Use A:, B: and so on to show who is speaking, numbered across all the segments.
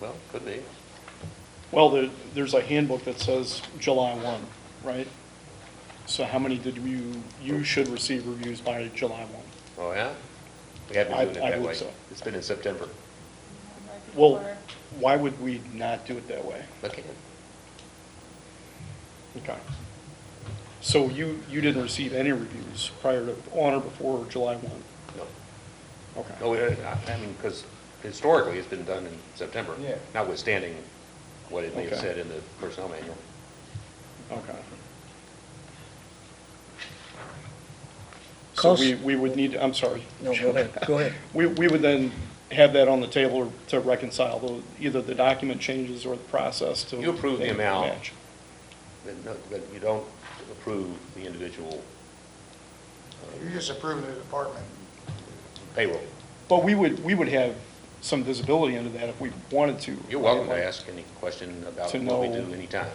A: Well, could be.
B: Well, there, there's a handbook that says July one, right? So how many did you, you should receive reviews by July one?
A: Oh, yeah? We have
B: I-
A: been doing it
B: I
A: that
B: believe
A: way.
B: so.
A: It's been in September.
B: Well, why would we not do it that way?
A: Okay.
B: Okay. So you, you didn't receive any reviews prior to, on or before July one?
A: No,
B: Okay.
A: no, we- I I mean, because historically, it's been done in September.
C: Yeah.
A: Notwithstanding what it may have
B: Okay.
A: said in the personnel manual.
B: Okay. So we,
C: Cost-
B: we would need, I'm sorry.
C: No, go ahead, go ahead.
B: We, we would then have that on the table to reconcile the, either the document changes or the process to.
A: You approve the amount.
B: match.
A: But no- But you don't approve the individual
D: You're just approving the department.
A: payroll.
B: But we would, we would have some visibility into that if we wanted to.
A: You're welcome to ask any question about
B: To
A: what we
B: know-
A: do anytime.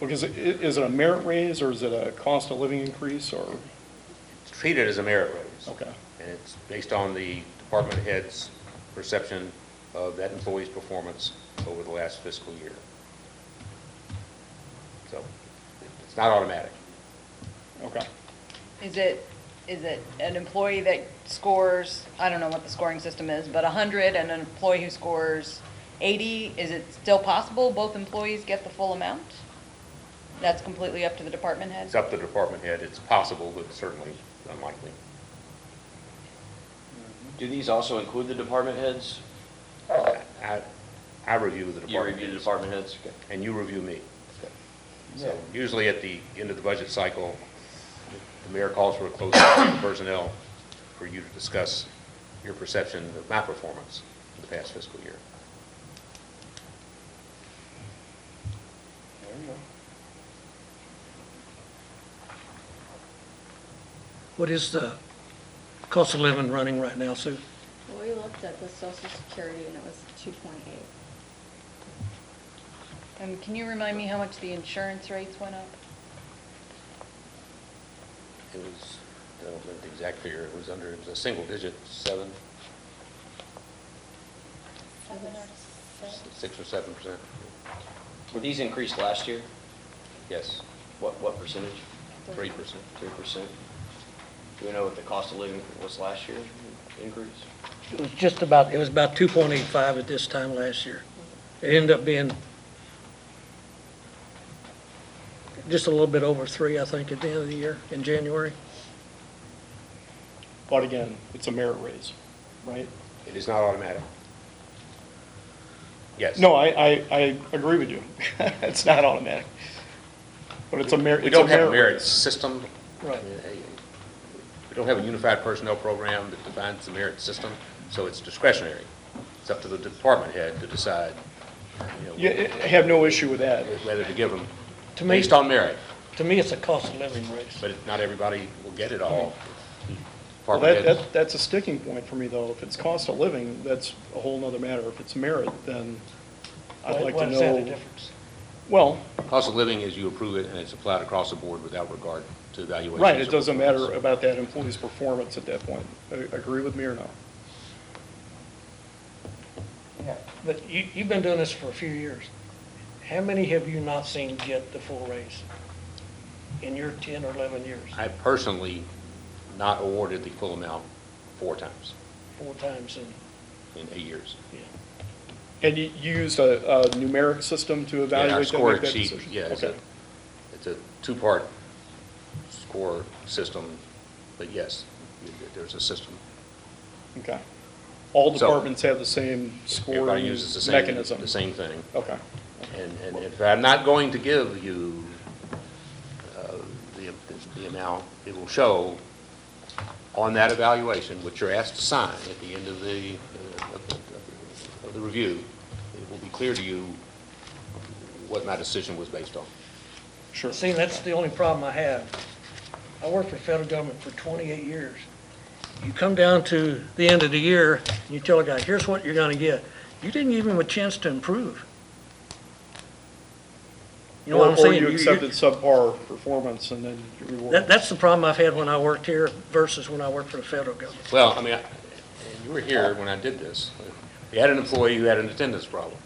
B: Because i- is it a merit raise or is it a cost of living increase or,
A: It's treated as a merit raise.
B: okay,
A: And it's based on the department head's perception of that employee's performance over the last fiscal year. So it's not automatic.
B: okay.
E: Is it, is it an employee that scores, I don't know what the scoring system is, but 100 and an employee who scores 80? Is it still possible both employees get the full amount? That's completely up to the department head?
A: It's up to the department head. It's possible, but certainly unlikely.
F: Do these also include the department heads?
A: I, I review the
F: Oh. You
A: department
F: review the
A: heads,
F: department heads? Okay.
A: and you review me.
C: Yeah.
A: So usually at the end of the budget cycle, the mayor calls for a closed session of personnel for you to discuss your perception of my performance in the past fiscal year.
C: There you go.
G: What is the cost of living running right now, Sue?
H: Well, we looked at the social security and it was two point eight.
E: And can you remind me how much the insurance rates went up?
A: It was, I don't remember the exact figure, it was under, it was a single digit, seven, six or seven percent.
F: Were these increased last year?
A: Yes,
F: What, what percentage?
A: three percent.
F: Three percent? Do we know what the cost of living was last year increase?
G: It was just about, it was about 2.85 at this time last year. It ended up being just a little bit over three, I think, at the end of the year, in January.
B: But again, it's a merit raise, right?
A: It is not automatic. Yes.
B: No, I, I, I agree with you. It's not automatic. But it's a merit.
A: We
B: it's
A: don't have a
B: raise.
A: merit system.
B: Right.
A: I mean, eh, We don't have a unified personnel program that defines the merit system, so it's discretionary. It's up to the department head to decide, you
B: Yeah,
A: know,
B: I have no issue with that.
A: whether to give them
G: To me,
A: based on merit,
G: to me, it's a cost of living raise.
A: but it- not everybody will get it all.
B: Well,
A: Department
B: that,
A: heads-
B: that, that's a sticking point for me, though. If it's cost of living, that's a whole nother matter. If it's merit, then I'd like
G: Why
B: to
G: is that a
B: know.
G: difference?
B: Well,
A: Cost of living is you approve it and it's applied across the board without regard to evaluation.
B: right, it doesn't matter about that employee's performance at that point. A- Agree with me or no?
C: Yeah.
G: But you, you've been doing this for a few years. How many have you not seen get the full raise in your 10 or 11 years?
A: I personally not awarded the full amount four times
G: Four times in,
A: in eight years.
G: yeah.
B: And you you used a, a numeric system to
A: Yeah, Our
B: evaluate that,
A: score
B: make that
A: sheet,
B: decision?
A: yeah, it's a,
B: Okay.
A: it's a two-part score system, but yes, there's a system.
B: Okay. All
A: So-
B: departments have the same scoring
A: Everybody uses the same,
B: mechanism?
A: the same thing.
B: Okay.
A: And, and if I'm not going to give you uh, the, the amount, it will show on that evaluation, which you're asked to sign at the end of the, uh, of the- of the review, it will be clear to you what my decision was based on.
B: Sure.
G: See, that's the only problem I have. I worked for federal government for 28 years. You come down to the end of the year, and you tell a guy, here's what you're gonna get. You didn't give him a chance to improve. You know what
B: Or or
G: I'm saying?
B: you accepted subpar performance and then you reward.
G: That, that's the problem I've had when I worked here versus when I worked for the federal government.
A: Well, I mean, I- and you were here when I did this. We had an employee who had an attendance problem.